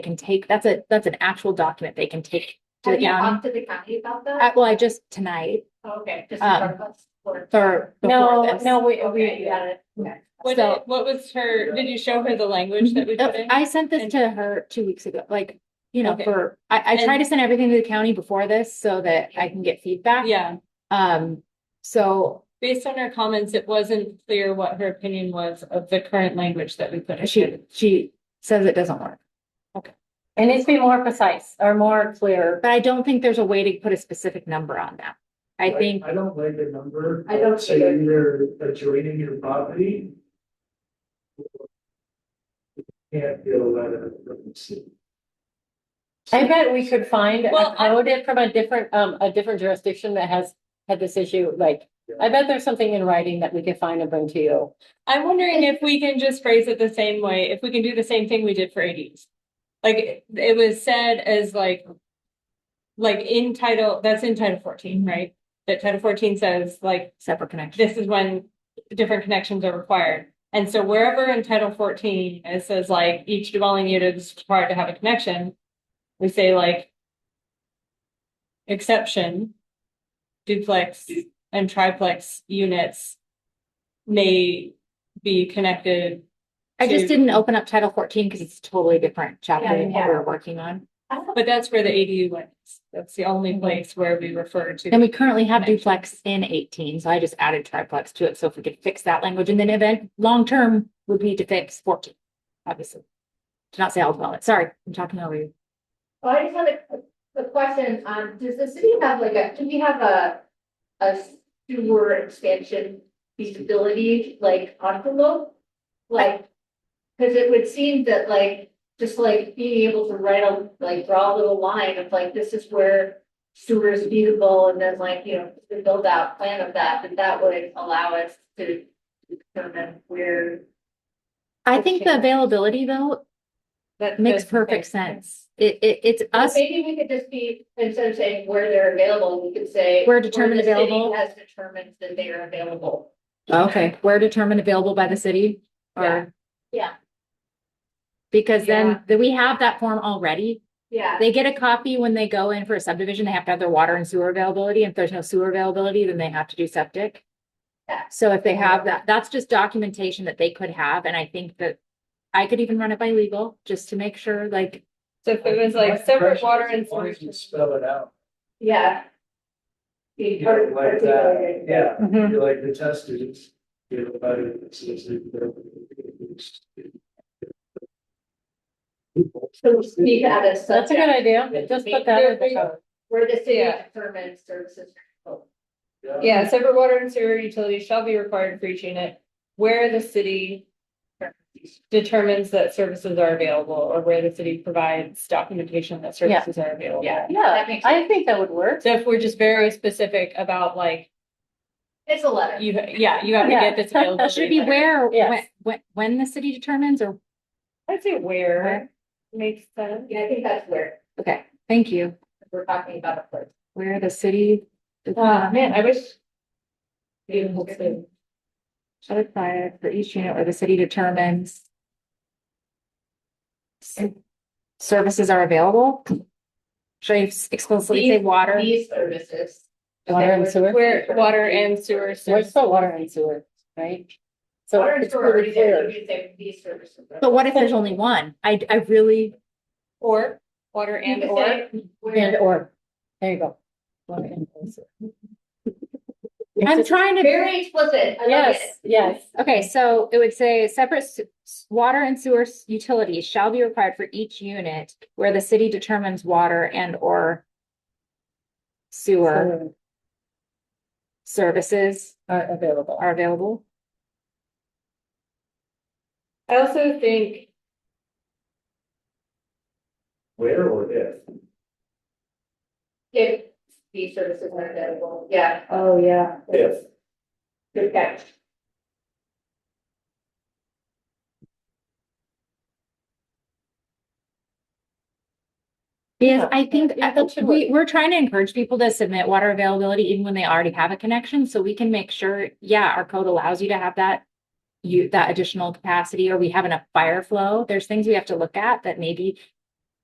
can take, that's a, that's an actual document they can take to the Oh, Have you county. talked to the county about I- that? Well, I just tonight, Okay. just um, regardless, or- for, before No, this. no, we, Okay, we, you got it. Okay. what, So- what was her, did you show her the language that we Uh, put in? I sent this And- to her two weeks ago, like, you know, Okay. for, I, I try And- to send everything to the county before this so that I can get feedback. Yeah, Um, so based on her comments, it wasn't clear what her opinion was of the current language that we put in. she, she says it doesn't work. It needs to be more precise or more clear. But I don't think there's a way to put a specific number on that. I think, I don't like the number. I don't Say either. either adjoining your property. or you Can't get a letter from the city. I bet we could find Well, a I- code from a different, um, a different jurisdiction that has had this issue, like, I bet there's something in writing that we could find and bring to you. I'm wondering if we can just phrase it the same way, if we can do the same thing we did for ADs. Like, it- it was said as like. Like in title, that's in title fourteen, right? That title fourteen says like, separate connection. this is when different connections are required. And so wherever in title fourteen, it says like each dwelling unit is required to have a connection, we say like. Exception. Duplex and triplex units. May be connected. I just to- didn't open up title fourteen because it's a totally different chapter than what yeah. we're working on. But that's where the ADU went. That's the only place where we refer to. Mm-hmm. And we currently have duplex in eighteen, so I just added triplex to it. So if we could fix that language and then event, long-term would be to fix fourteen, obviously. To not say all about it. Sorry, I'm talking over you. Well, I just had a, a question, um, does the city have like a, do we have a, a sewer expansion feasibility, like, envelope? Like, cause it would seem that like, just like being able to write a, like, draw a little line of like, this is where sewer is feasible, and then like, you know, the build out plan of that, that that would allow us to determine where I think the Okay. availability though That makes perfect sense. It, it, it's Well, us, Maybe we could just be, instead of saying where they're available, we could say. Where determined the city available. Oh, Has determined that they are available. okay, where determined available by the city Yeah. or. Yeah. Because Yeah. then, that we have that form already. Yeah. They get a copy when they go in for a subdivision, they have to have their water and sewer availability, and if there's no sewer availability, then they have to do septic. Yeah. So if they have that, that's just documentation that they could have, and I think that I could even run it by legal, just to make sure, like, So if it was like separate water and Why don't you solutions. Spell it out. Yeah. Be You part- know, like that, particularly- yeah, you're like the test students. You know, about it, so it's like they're- So we speak out of That's a good subject, idea, just put that in the code. where the city Yeah. determines services. Yeah, separate water and sewer utilities shall be required for each unit where the city determines that services are available or where the city provides documentation that Yeah. services are available. Yeah. That Yeah, makes I think that would work. So if we're just very specific about like, It's a letter. you, yeah, you have to Yeah. get this available. should be where, when, Yes. when, when the city determines, or, I'd say where makes sense. Yeah, I think that's where okay, thank you, we're talking about a place. where the city. Ah, man, I wish. Shall apply for each unit where the city determines. Services are available. Should I explicitly say water? These services. Water and sewer, Where water and sewer. where's the water and sewer, right? So Water and it's sewer are pretty already there, clear. you could say these services. But what if there's only one? I, I really, Or, water You and could or. say where- And or, there you go. Water and sewer. I'm trying to, Very explicit, I love it. Yes, yes. okay, so it would say separate s- s- water and sewer s- utilities shall be required for each unit where the city determines water and or sewer Sewer services Are available. are available. I also think Where or if? If these services are available, yeah, Oh, yeah. If. good catch. Because I think, Yeah, that should we, we're trying to encourage people to submit water availability even when they already have a connection, so we can make sure, yeah, our code allows you to have that. You, that additional capacity, or we have enough fire flow, there's things we have to look at that maybe